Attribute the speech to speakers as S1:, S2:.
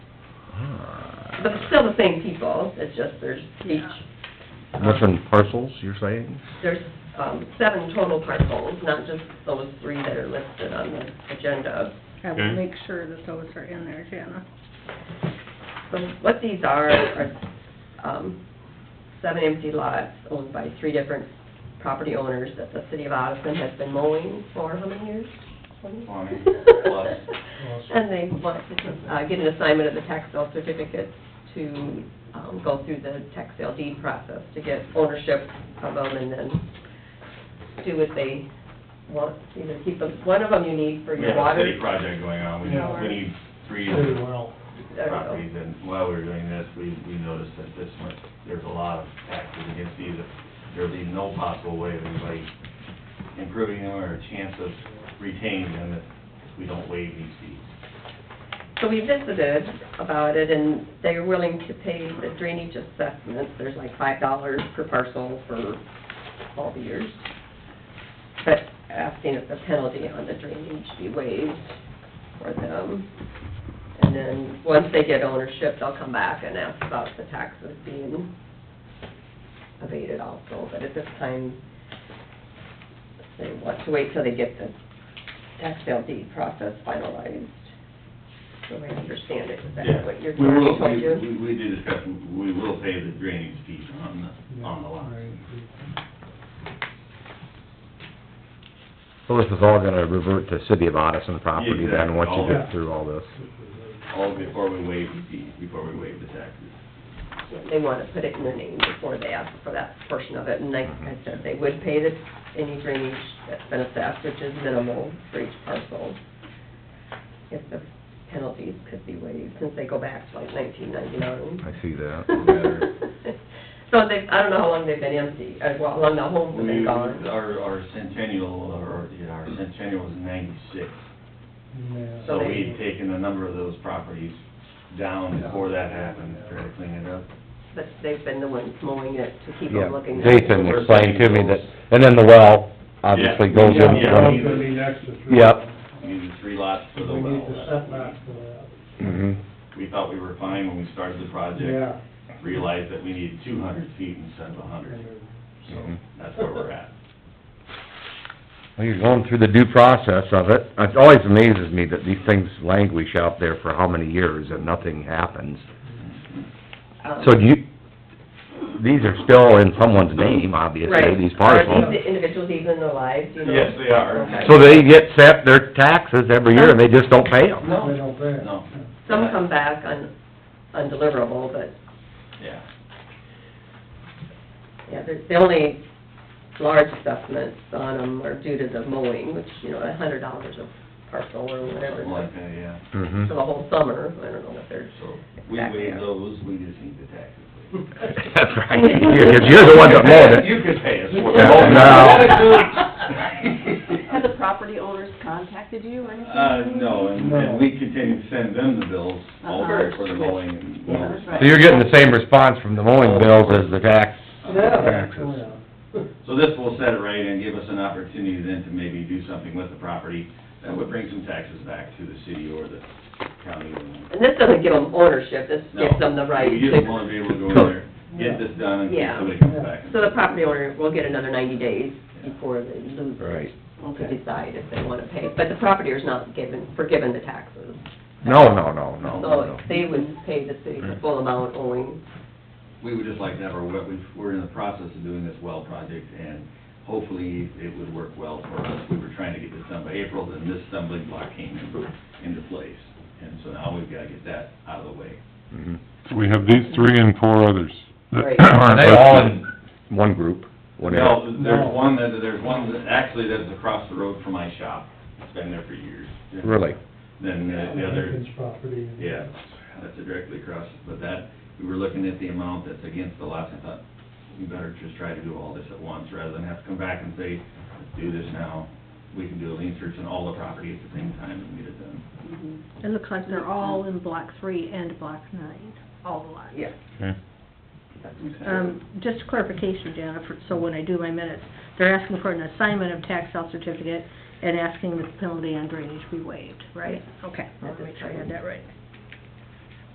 S1: the, still the same people, it's just there's each,
S2: Different parcels, you're saying?
S1: there's, um, seven total parcels, not just those three that are listed on the agenda.
S3: I
S4: Okay.
S3: will make sure that those are in there, Jana.
S1: So what these are, are, um, seven empty lots owned by three different property owners that the city of Addison has been mowing for how many years? Twenty?
S5: Twenty plus.
S1: And they want to, uh, get an assignment of the tax sale certificate to, um, go through the tax sale deed process to get ownership of them and then do what they want, either keep them, one of them you need for
S5: We
S1: your
S5: have a
S1: water.
S5: city project going on, we
S1: Yeah.
S5: need, we need three
S6: Very well.
S1: I don't know.
S5: properties, and while we were doing this, we, we noticed that this much, there's a lot of taxes against these, there'd be no possible way of anybody improving them or a chance of retaining them if we don't waive these fees.
S1: So we visited about it, and they're willing to pay the drainage assessment, there's like five dollars per parcel for all the years. But asking if the penalty on the drainage be waived for them. And then, once they get ownership, they'll come back and ask about the taxes being abated also, but at this time, they want to wait till they get the tax sale deed process finalized. So I understand it, is that what you're,
S5: We will,
S1: what I
S5: we,
S1: told you?
S5: we- we did discuss, we will pay the drainage fees on the, on the lot.
S2: So this is all gonna revert to city of Odison property then, once you
S5: Exactly.
S2: get through all this?
S5: All before we waive the fees, before we waive the taxes.
S1: Yeah, They want to put it in their name before they ask for that portion of it, and like I said, they would pay the, any drainage that's been assessed, which is minimal for each parcel. If the penalties could be waived, since they go back to like nineteen ninety-nine.
S2: I see that.
S1: So they, I don't know how long they've been empty, uh, well, how long the homes have been
S5: We,
S1: gone.
S5: our, our centennial, or, yeah, our centennial was ninety-six.
S6: Yeah.
S1: So
S5: So
S1: they-
S5: we'd taken a number of those properties down before that happened, tried to clean it up.
S1: But they've been the ones mowing it to keep
S2: Yeah,
S1: them looking. at it.
S2: Jason explained to me that, and then the well obviously
S5: Yeah.
S2: goes in
S6: Yeah,
S2: from...
S6: it's gonna be next to three.
S2: Yep.
S5: We needed three lots for the
S6: We need the
S5: well.
S6: setback for that,
S2: Mhm.
S5: We thought we were fine when we started the project,
S6: yeah.
S5: realized that we needed two hundred feet instead of a hundred, so
S2: Mhm.
S5: that's where we're at.
S2: Well, you're going through the due process of it. It always amazes me that these things languish out there for how many years and nothing happens.
S1: Um,
S2: So do you, these are still in someone's name, obviously,
S1: Right.
S2: these parcels.
S1: Are these the individuals even alive, do you know?
S5: Yes, they are.
S1: Okay.
S2: So they get set their taxes every year and they just don't pay them?
S6: They don't pay it.
S5: No.
S1: Some come back un undeliverable, but,
S5: Yeah.
S1: yeah, the, the only large assessments on them are due to the mowing, which, you know, a hundred dollars a parcel or whatever,
S5: Something like that, yeah.
S2: Mhm.
S1: for the whole summer, I don't know what they're.
S5: So we
S1: Exactly.
S5: waived those, we just need the taxes.
S2: That's right, you're, you're the one that mowed it.
S5: You could pay us. for
S2: Yeah,
S5: it.
S7: Have the property owners contacted you or anything?
S5: Uh, no, and, and we continue to send them the bills over
S7: Uh-huh.
S5: for the mowing and.
S7: Yeah, that's right.
S2: So you're getting the same response from the mowing bills as the tax?
S6: Yeah.
S2: Taxes.
S6: Oh, yeah.
S5: So this will set it right and give us an opportunity then to maybe do something with the property that would bring some taxes back to the city or the county.
S1: And this doesn't give them ownership, this gives them the right
S5: No, We just
S1: to,
S5: wanna be able to go in there, get this done and
S1: Yeah.
S5: somebody comes back. and-
S1: so the property owner will get another ninety days before they lose. it
S2: Right.
S1: To decide if they wanna pay, but the property owner's not given, forgiven the taxes.
S2: No, no, no, no,
S5: Oh,
S2: no,
S1: So
S2: no.
S1: they would pay the city the full amount owing.
S5: We would just like to have our, well- we've- we're in the process of doing this well project, and hopefully it would work well for us. We were trying to get this done by April, then this stumbling block came in- into place, and so now we've got to get that out of the way.
S2: Mhm.
S4: We have these three and four others. that
S1: Right.
S2: Are
S4: aren't
S2: they all
S4: listed.
S2: in one group, whatever?
S5: No, there's one that, there's one that, actually, that's across the road from my shop. It's been there for years.
S2: Really?
S5: Then the the other,
S6: Lincoln's property.
S5: yeah, that's directly across, but that, we were looking at the amount that's against the lots, I thought, we better just try to do all this at once, rather than have to come back and say, let's do this now. We can do a lien search on all the property at the same time and get it done.
S3: It looks like they're all in block three and block nine, all the lots.
S1: Yeah.
S4: Okay.
S3: Um, just clarification, Jennifer, so when I do my minutes, they're asking for an assignment of tax sale certificate and asking that the penalty on drainage be waived, right? Okay, I wanna make sure I had that right.